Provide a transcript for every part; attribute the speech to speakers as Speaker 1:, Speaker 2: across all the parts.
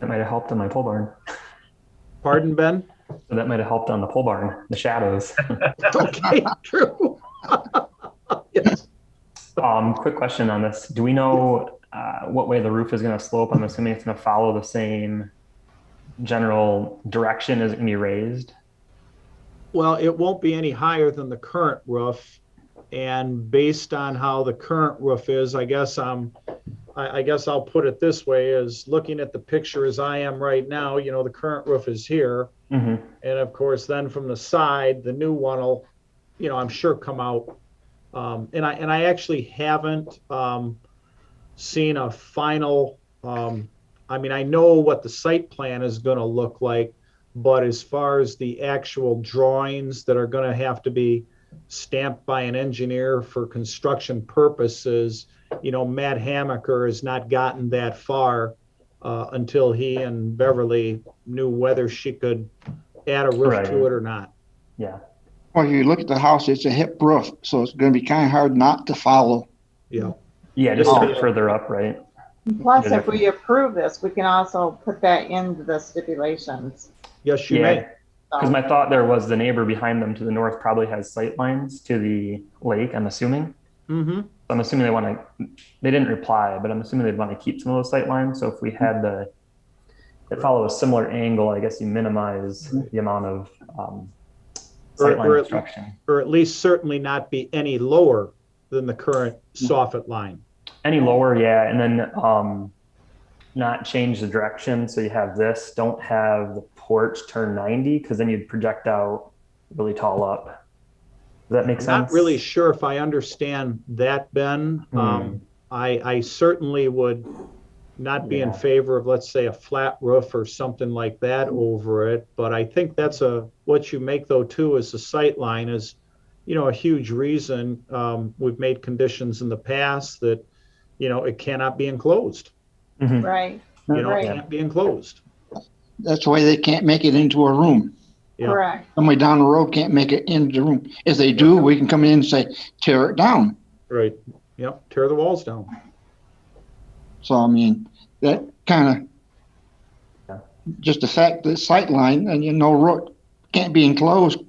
Speaker 1: That might have helped on my pole barn.
Speaker 2: Pardon, Ben?
Speaker 1: So that might have helped on the pole barn, the shadows.
Speaker 2: Okay, true. Yes.
Speaker 1: um, quick question on this. Do we know uh, what way the roof is going to slope? I'm assuming it's going to follow the same general direction as it can be raised.
Speaker 2: Well, it won't be any higher than the current roof. And based on how the current roof is, I guess I'm, I, I guess I'll put it this way, is looking at the picture as I am right now, you know, the current roof is here.
Speaker 1: hmm
Speaker 2: And of course, then from the side, the new one will, you know, I'm sure come out. Um, and I, and I actually haven't, um, seen a final, um, I mean, I know what the site plan is gonna look like, but as far as the actual drawings that are gonna have to be stamped by an engineer for construction purposes, you know, Matt Hamaker has not gotten that far, uh, until he and Beverly knew whether she could add a roof to
Speaker 1: Right.
Speaker 2: it or not.
Speaker 1: Yeah.
Speaker 3: Well, you look at the house, it's a hip roof, so it's going to be kind of hard not to follow.
Speaker 2: Yeah.
Speaker 1: Yeah, just a bit
Speaker 2: Oh.
Speaker 1: further up, right?
Speaker 4: Plus, if we approve this, we can also put that into the stipulations.
Speaker 2: Yes, you
Speaker 1: yeah.
Speaker 2: may.
Speaker 1: Because my thought there was the neighbor behind them to the north probably has sight lines to the lake, I'm assuming.
Speaker 2: Mm-hmm.
Speaker 1: I'm assuming they want to, they didn't reply, but I'm assuming they'd want to keep some of those sight lines. So if we had the, it follow a similar angle, I guess you minimize the amount of um,
Speaker 2: Or-
Speaker 1: sight line
Speaker 2: or-
Speaker 1: obstruction.
Speaker 2: Or at least certainly not be any lower than the current
Speaker 1: Mm-hmm.
Speaker 2: soffit line.
Speaker 1: Any lower, yeah, and then um, not change the direction. So you have this. Don't have the porch turn 90 because then you'd project out really tall up. Does that make sense? Hmm.
Speaker 2: Not really sure if I understand that, Ben. Um, I, I certainly would not be in
Speaker 1: Yeah.
Speaker 2: favor of, let's say, a flat roof or something like that over it. But I think that's a, what you make though too is the sight line is, you know, a huge reason. Um, we've made conditions in the past that, you know, it cannot be enclosed.
Speaker 1: Mhm.
Speaker 4: Right,
Speaker 2: You know, it
Speaker 4: Right.
Speaker 2: can't be enclosed.
Speaker 3: That's why they can't make it into a room.
Speaker 2: Yeah.
Speaker 4: correct.
Speaker 3: Somebody down the road can't make it into the room. If they do, we can come in and say, tear it down.
Speaker 2: Right. Yep. Tear the walls down.
Speaker 3: So, I mean, that kind
Speaker 1: Yeah.
Speaker 3: of, just the fact that sight line and you know, road can't be enclosed.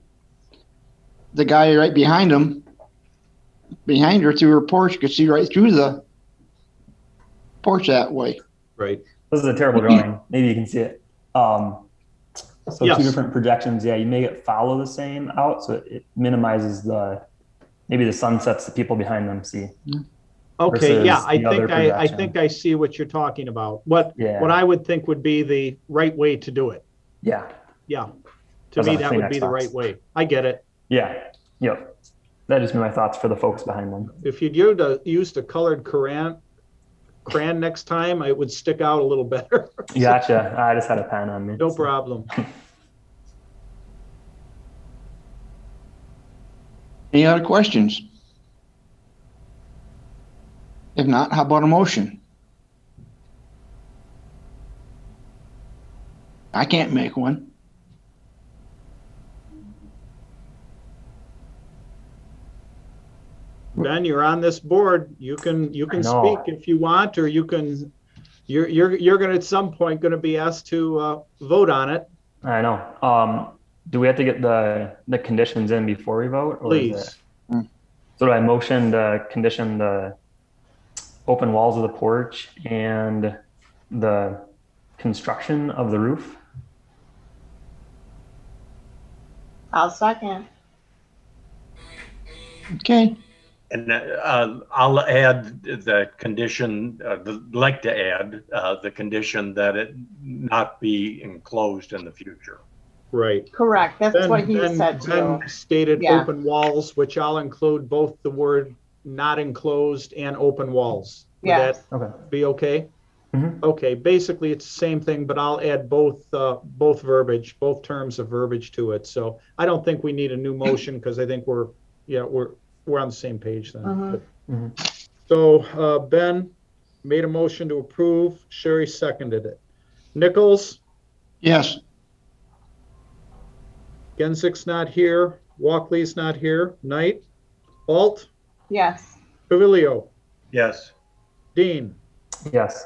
Speaker 3: The guy right behind him, behind her through her porch, could see right through the porch that way.
Speaker 2: Right.
Speaker 1: This is a terrible drawing. Maybe you can see it. Um, so
Speaker 2: Yes.
Speaker 1: two different projections. Yeah, you make it follow the same out, so it minimizes the maybe the sunsets that people behind them see.
Speaker 2: Okay, yeah,
Speaker 1: versus
Speaker 2: I
Speaker 1: the other
Speaker 2: think I, I
Speaker 1: projection.
Speaker 2: think I see what you're talking about. What,
Speaker 1: Yeah.
Speaker 2: what I would think would be the right way to do it.
Speaker 1: Yeah.
Speaker 2: Yeah.
Speaker 1: I
Speaker 2: To
Speaker 1: was
Speaker 2: me,
Speaker 1: on a
Speaker 2: that would
Speaker 1: Kleenex
Speaker 2: be the
Speaker 1: box.
Speaker 2: right way. I get it.
Speaker 1: Yeah. Yep. That just been my thoughts for the folks behind them.
Speaker 2: If you'd used a, used a colored crayon, crayon next time, it would stick out a little better.
Speaker 1: Gotcha. I just had a pen on me.
Speaker 2: No
Speaker 1: so.
Speaker 2: problem.
Speaker 3: Any other questions? If not, how about a motion? I can't make one.
Speaker 2: Ben, you're on this board. You can, you can
Speaker 1: I know.
Speaker 2: speak if you want, or you can, you're, you're, you're gonna, at some point, gonna be asked to, uh, vote on it,
Speaker 1: I know. Um, do we have to get the the conditions in before we vote? Or is
Speaker 2: please.
Speaker 1: it- So do I motion to condition the open walls of the porch and the construction of the roof?
Speaker 4: I'll second.
Speaker 3: Okay,
Speaker 5: And uh, I'll add the condition, uh, the- like to add uh, the condition that it not be enclosed in the future.
Speaker 2: Right.
Speaker 4: Correct, that's
Speaker 2: Ben-
Speaker 4: what he
Speaker 2: Ben-
Speaker 4: said too.
Speaker 2: Ben Stated
Speaker 4: Yeah.
Speaker 2: open walls, which I'll include both the word not enclosed and open walls. Would
Speaker 4: Yes.
Speaker 2: that
Speaker 1: Okay.
Speaker 2: Be okay?
Speaker 1: Mhm.
Speaker 2: Okay, basically it's the same thing, but I'll add both, uh, both verbiage, both terms of verbiage to it. So I don't think we need a new motion because I think we're, yeah, we're, we're on the same page
Speaker 4: Mhm.
Speaker 2: then.
Speaker 1: Mhm.
Speaker 2: So, uh, Ben made a motion to approve, Sherry seconded it. Nichols?
Speaker 3: yes,
Speaker 2: Gensick's not here. Walkley's not here. Knight, Alt,
Speaker 4: Yes.
Speaker 2: Pavilio,
Speaker 5: Yes.
Speaker 2: Dean.
Speaker 1: Yes.